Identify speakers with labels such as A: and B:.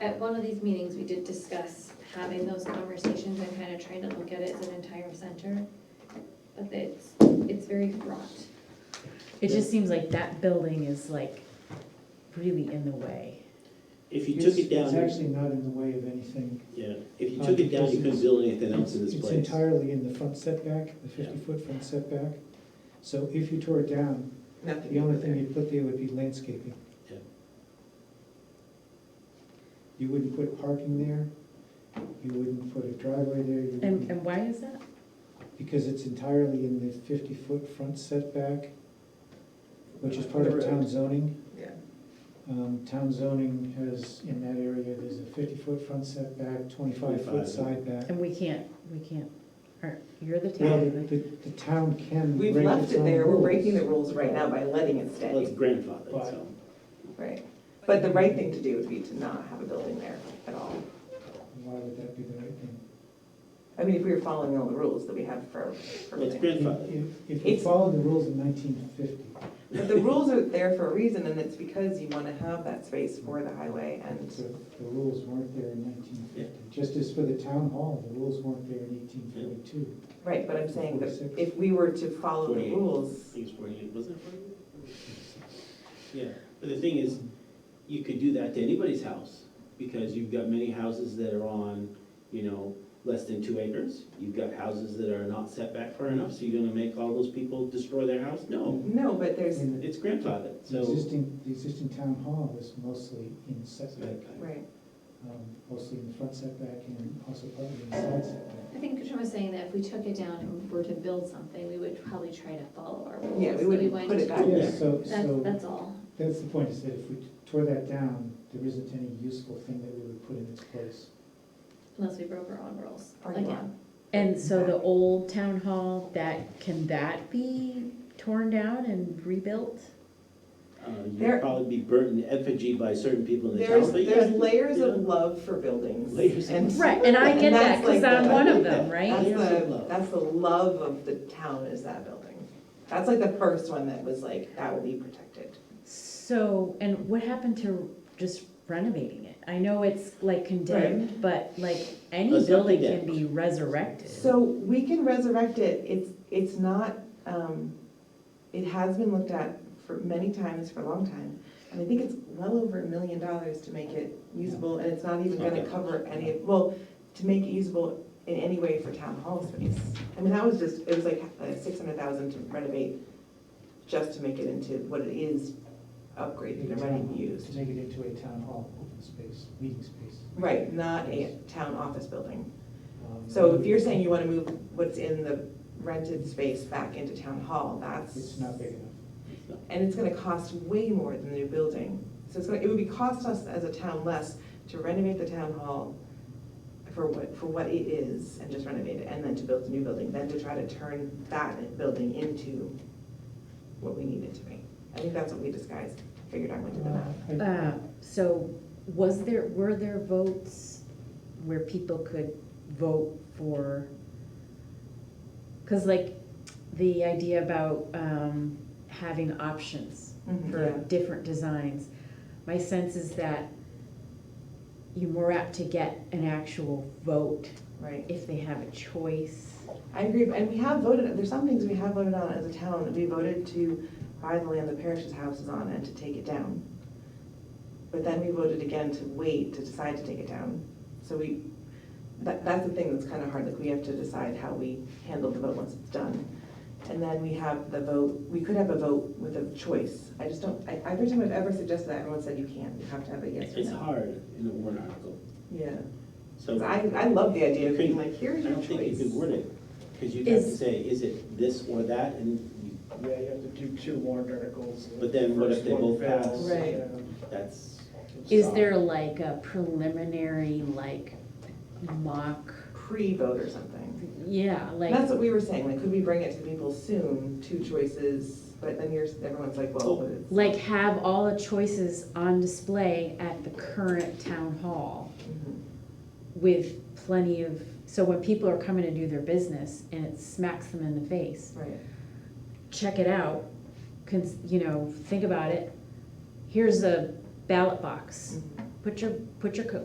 A: at one of these meetings, we did discuss having those conversations and kind of trying to look at it as an entire center. But it's, it's very fraught.
B: It just seems like that building is like really in the way.
C: If you took it
D: It's- It's
C: down,
D: actually not in the way of anything.
C: yeah, if you took it down, you couldn't build anything else in this
D: It's
C: place.
D: entirely in the front setback, the
C: Yeah.
D: fifty-foot front setback. So if you tore it down, the only thing you'd put there would be landscaping.
C: Yeah.
D: You wouldn't put parking there, you wouldn't put a driveway there, you
B: And,
D: wouldn't,
B: and why is that?
D: because it's entirely in the fifty-foot front setback, which is part of town zoning.
E: Yeah.
D: Um, Town zoning has, in that area, there's a fifty-foot front setback, twenty-five
C: 25.
D: foot side back.
B: And we can't, we can't, are- you're the
D: Well,
B: town,
D: the, the town can break its own
E: We've
D: rules.
E: left it there, we're breaking the rules right now by letting it
C: Well, it's
E: stay,
C: grandfathered,
D: But-
C: so.
E: right? But the right thing to do would be to not have a building there at all.
D: Why would that be the right thing?
E: I mean, if we were following all the rules that we have for
C: Well, it's
E: everything.
C: grandfathered.
D: If- If we
E: It's-
D: followed the rules in nineteen fifty,
E: But the rules are there for a reason, and it's because you want to have that space for the highway
D: the,
E: and,
D: the rules weren't there in nineteen fifty. Just as for the town hall, the rules weren't there in eighteen forty-two.
E: right, but I'm saying that if we were to follow the
C: Forty-eight. I
E: rules,
C: think it's forty-eight, wasn't it forty-eight? Yeah, but the thing is, you could do that to anybody's house, because you've got many houses that are on, you know, less than two acres. You've got houses that are not set back far enough, so you're gonna make all those people destroy their house? No,
E: no, but there's,
D: And
C: it's grandfathered,
D: the
C: so.
D: existing, the existing town hall was mostly in
C: uh,
D: setback,
E: right,
D: um, mostly in the front setback and also partly in the side setback.
A: I think Katrin was saying that if we took it down and were to build something, we would probably try to follow our rules.
E: yeah, we
A: that
E: wouldn't
A: went
E: put it
A: to.
E: back
D: Yeah,
E: there.
D: so,
A: That's,
D: so,
A: that's all.
D: that's the point, is that if we tore that down, there isn't any useful thing that we would put in its place.
A: Unless we broke our own rules.
E: Or
A: Again,
E: not.
B: and so the old town hall, that, can that be torn down and rebuilt?
C: Uh,
E: There-
C: You'd probably be burnt in effigy by certain people in the town,
E: There's,
C: but
E: there's
C: yeah.
E: layers of
C: yeah.
E: love for buildings.
C: Layers of
E: and-
C: love.
B: Right, and I get that,
E: that's like
B: cause I'm
E: the-
B: one of them, right?
E: That's
C: Layers of
E: the,
C: love.
E: that's the love of the town is that building. That's like the first one that was like, that will be protected.
B: So, and what happened to just renovating it? I know it's like condemned, but like any
C: Let's not
B: building can
C: condemn.
B: be resurrected.
E: So we can resurrect it, it's, it's not, um, it has been looked at for many times for a long time. And I think it's well over a million dollars to make it usable, and it's not even gonna
C: Okay.
E: cover any, of well, to make it usable in any way for town hall space. I mean, that was just, it was like uh, six hundred thousand to renovate, just to make it into what it is, upgraded and ready to use.
D: To make it into a town hall, open space, meeting space.
E: Right, not a town office building.
D: Um,
E: So if you're saying you wanna move what's in the rented space back into town hall, that's.
D: It's not big enough.
E: And it's gonna cost way more than the new building. So it's gonna, it would be cost us as a town less to renovate the town hall for what, for what it is and just renovate it, and then to build the new building, than to try to turn that building into what we need it to be. I think that's what we disguised, figured out when we did the math.
D: Uh, I-
B: Uh, So was there, were there votes where people could vote for? Because like, the idea about um, having options
E: Mhm,
B: for
E: yeah.
B: different designs, my sense is that you're more apt to get an actual vote
E: Right.
B: if they have a choice.
E: I agree, and we have voted, there's some things we have voted on as a town, we voted to buy the land the parish's house is on and to take it down. But then we voted again to wait to decide to take it down. So we, that, that's the thing that's kind of hard, like we have to decide how we handle the vote once it's done. And then we have the vote, we could have a vote with a choice. I just don't, I, every time I've ever suggested that, everyone said you can't, you have to have a yes or
C: It's
E: no.
C: hard in a warrant article,
E: Yeah,
C: so.
E: 'Cause I, I love the idea of
C: Couldn't-
E: being like, here's
C: I
E: your
C: don't
E: choice.
C: think you could word it, because you'd have to
B: Is-
C: say, is it this or that, and
F: Yeah, you have to do two warrant articles. and
C: But then what if
F: first
C: they
F: one um,
C: both
F: fails,
C: pass?
E: Right.
F: yeah.
C: that's.
B: Is there like a preliminary, like mock,
E: Pre-vote or something.
B: yeah, like?
E: That's what we were saying, like, could we bring it to people soon, two choices, but then you're, everyone's like, well, but it's.
B: like have all the choices on display at the current town hall
E: Mhm.
B: with plenty of, so when people are coming to do their business and it smacks them in the face,
E: Right,
B: check it out, cons- you know, think about it. Here's a ballot box.
E: Mhm.
B: Put your, put your co-